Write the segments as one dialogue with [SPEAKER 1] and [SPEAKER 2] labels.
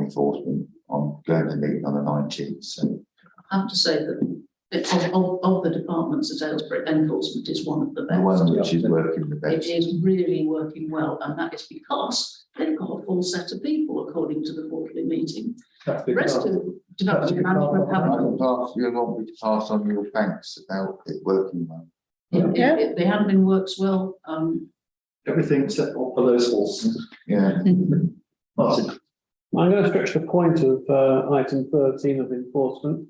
[SPEAKER 1] enforcement, I'm going to meet on the nineteenth, so.
[SPEAKER 2] I have to say that it- of, of, of the departments at Aylesbury, enforcement is one of the
[SPEAKER 1] The
[SPEAKER 2] best.
[SPEAKER 1] one which is working the
[SPEAKER 2] It
[SPEAKER 1] best.
[SPEAKER 2] is really working well, and that is because they've got a full set of people, according to the quarterly meeting.
[SPEAKER 3] That's
[SPEAKER 2] The
[SPEAKER 3] big
[SPEAKER 2] rest
[SPEAKER 3] enough.
[SPEAKER 2] of development management
[SPEAKER 1] I
[SPEAKER 2] haven't.
[SPEAKER 1] can pass, you want me to pass on your thanks about it working well.
[SPEAKER 2] it- it- They haven't been works well, um,
[SPEAKER 3] Everything except for those horses.
[SPEAKER 1] Yeah,
[SPEAKER 3] Martin,
[SPEAKER 4] I'm going to stretch the point of uh, item thirteen of enforcement.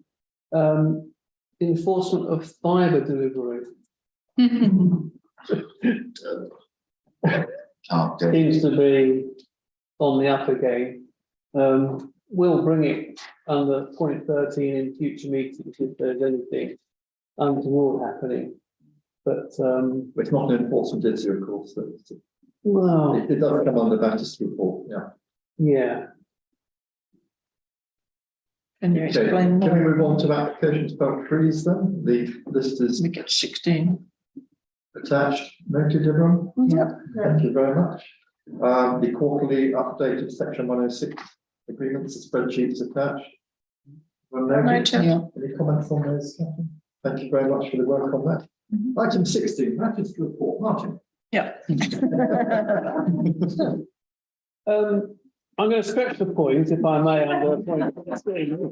[SPEAKER 4] Um, Enforcement of fibre delivery
[SPEAKER 1] can't do.
[SPEAKER 4] seems to be on the up again. Um, We'll bring it under point thirteen in future meetings if there's anything untoward happening. But, um,
[SPEAKER 3] it's not an enforcement issue, of course, so it's-
[SPEAKER 4] well,
[SPEAKER 3] it, it does come under Baptist report, yeah.
[SPEAKER 4] yeah,
[SPEAKER 5] Can you
[SPEAKER 3] Okay,
[SPEAKER 5] explain
[SPEAKER 3] Can we
[SPEAKER 5] more?
[SPEAKER 3] move on to applications about trees then? The list is
[SPEAKER 5] We get sixteen.
[SPEAKER 3] attached, noted everyone?
[SPEAKER 2] Mm-hmm.
[SPEAKER 5] Yeah.
[SPEAKER 3] Thank you very much. Um, the quarterly update of section one oh six agreements, the spreadsheets attached.
[SPEAKER 2] oh
[SPEAKER 3] Everyone noted?
[SPEAKER 5] Noted. Yeah.
[SPEAKER 3] Any comments on those? Catherine? Thank you very much for the work on that. Item sixteen, Baptist report, Martin.
[SPEAKER 4] Um, I'm going to stretch the point if I may under point thirteen.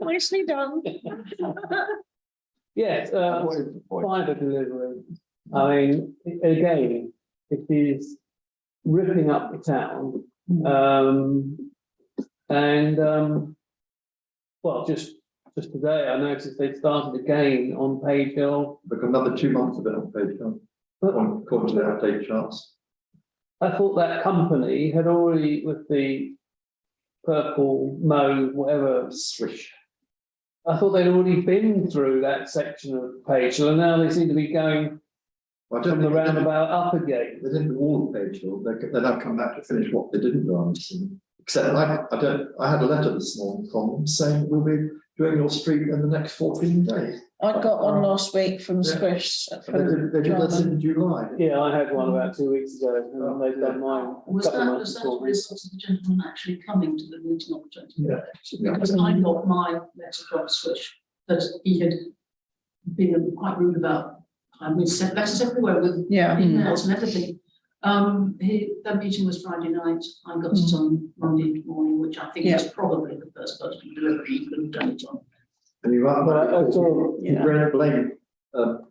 [SPEAKER 5] Nicely done.
[SPEAKER 4] Yes, uh,
[SPEAKER 1] What is the point?
[SPEAKER 4] fibre delivery. I mean, a- again, it is ripping up the town. Um, and, um, well, just, just today, I noticed they started again on Page Hill.
[SPEAKER 3] We've got another two months of it on page one, on quarterly update charts.
[SPEAKER 4] I thought that company had already with the purple, mauve, whatever swish. I thought they'd already been through that section of Page Hill and now they seem to be going
[SPEAKER 3] I don't think
[SPEAKER 4] from the
[SPEAKER 3] they did-
[SPEAKER 4] roundabout up again.
[SPEAKER 3] they didn't do all of page one, they, they now come back to finish what they didn't do on this. Except I, I don't, I had a letter this morning from them saying, we'll be doing your street in the next fourteen days.
[SPEAKER 5] I got one last week from
[SPEAKER 3] Yeah.
[SPEAKER 5] Squish.
[SPEAKER 3] They did, they did this in July.
[SPEAKER 4] Yeah, I had one about two weeks ago, and they've done mine.
[SPEAKER 2] was
[SPEAKER 4] a couple
[SPEAKER 2] that,
[SPEAKER 4] of
[SPEAKER 2] was
[SPEAKER 4] months
[SPEAKER 2] that a
[SPEAKER 4] before.
[SPEAKER 2] result of the gentleman actually coming to the meeting on the twenty?
[SPEAKER 3] Yeah. Yeah.
[SPEAKER 2] Because I got my letter from Swish that he had been quite rude about, and we sent letters everywhere with
[SPEAKER 5] Yeah.
[SPEAKER 2] emails and everything. Um, he, that meeting was Friday night, I got it on Monday morning, which I think is probably the first person delivery you could have done it on.
[SPEAKER 3] And you are,
[SPEAKER 4] But I- I saw-
[SPEAKER 3] you don't blame, um,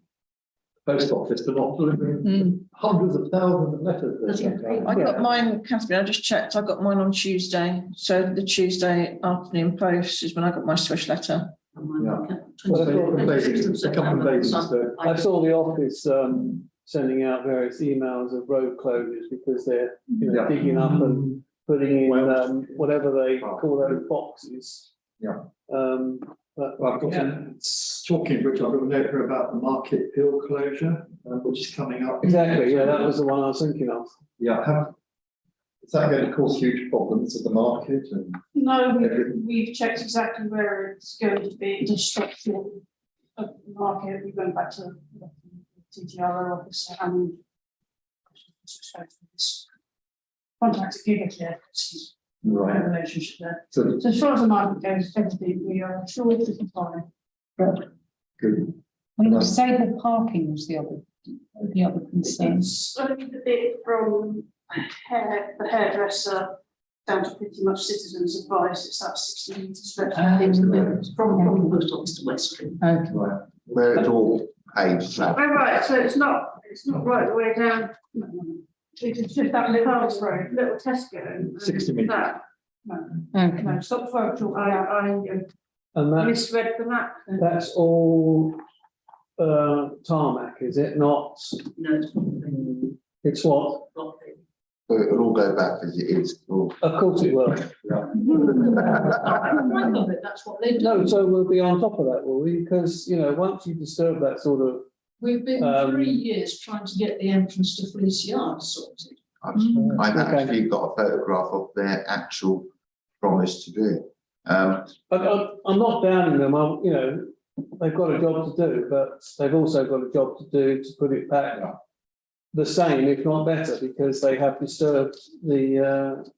[SPEAKER 3] post office for not delivering
[SPEAKER 5] Mm.
[SPEAKER 3] hundreds of thousands of letters. they sent out.
[SPEAKER 5] I got mine, Catherine, I just checked, I got mine on Tuesday, so the Tuesday afternoon post is when I got my Swish letter.
[SPEAKER 2] And my-
[SPEAKER 3] Yeah.
[SPEAKER 4] Well,
[SPEAKER 3] So,
[SPEAKER 4] I thought-
[SPEAKER 3] a
[SPEAKER 2] 26th of
[SPEAKER 3] couple of
[SPEAKER 2] September,
[SPEAKER 3] days,
[SPEAKER 2] so
[SPEAKER 3] so.
[SPEAKER 4] I saw the office, um, sending out various emails of road closures because they're, you know,
[SPEAKER 3] Yeah.
[SPEAKER 4] digging up
[SPEAKER 6] Mm.
[SPEAKER 4] and putting in,
[SPEAKER 3] Well-
[SPEAKER 4] um, whatever they call those boxes.
[SPEAKER 3] Yeah.
[SPEAKER 4] Um, but,
[SPEAKER 3] Well, I've got,
[SPEAKER 4] Yeah.
[SPEAKER 3] a- s- talking, which I've got a note here about the Market Hill closure, uh, which is coming up.
[SPEAKER 4] exactly, yeah, that was the one I was thinking of.
[SPEAKER 3] Yeah, have, is that going to cause huge problems at the market and?
[SPEAKER 6] No,
[SPEAKER 3] Everything.
[SPEAKER 6] we've, we've checked exactly where it's going to be, the structure of the market, we went back to the TTRO office and contacted Giga Care, because we have a relationship there.
[SPEAKER 3] So,
[SPEAKER 6] So as far as the market goes, everything, we are sure it's a fine.
[SPEAKER 3] good.
[SPEAKER 7] Well, you say the parking was the other, the other concern.
[SPEAKER 6] It's only the bit from hair, the hairdresser down to pretty much citizens advice, it's that sixteen metres stretch.
[SPEAKER 7] Ah.
[SPEAKER 2] It's the bit From, from the post office to West Street.
[SPEAKER 7] Okay.
[SPEAKER 3] Right,
[SPEAKER 1] Where it's all paved, so
[SPEAKER 6] Right, right, so it's not, it's not right the way down. It's just that little house road, little Tesco. and
[SPEAKER 3] 60 metres.
[SPEAKER 6] that.
[SPEAKER 7] Okay.
[SPEAKER 6] No, stop for a talk, I,
[SPEAKER 4] And
[SPEAKER 6] I uh,
[SPEAKER 4] that's,
[SPEAKER 6] misread the map.
[SPEAKER 4] that's all, uh, tarmac, is it not?
[SPEAKER 2] No, it's not
[SPEAKER 6] Mm.
[SPEAKER 2] been-
[SPEAKER 4] It's what?
[SPEAKER 2] not been-
[SPEAKER 1] it'll all go back as it is. Oh, It'll-
[SPEAKER 4] Of course it will.
[SPEAKER 2] I remember that, that's what they do.
[SPEAKER 4] No, so we'll be on top of that, will we? Because, you know, once you disturb that sort of,
[SPEAKER 2] We've been
[SPEAKER 4] Um,
[SPEAKER 2] three years trying to get the entrance to Fleece Yard sorted.
[SPEAKER 1] I've
[SPEAKER 7] Mm.
[SPEAKER 1] I've
[SPEAKER 4] Okay.
[SPEAKER 1] actually got a photograph of their actual promise to do it. Um,
[SPEAKER 4] I, I, I'm not downing them, I'm, you know, they've got a job to do, but they've also got a job to do to put it back the same, if not better, because they have disturbed the, uh,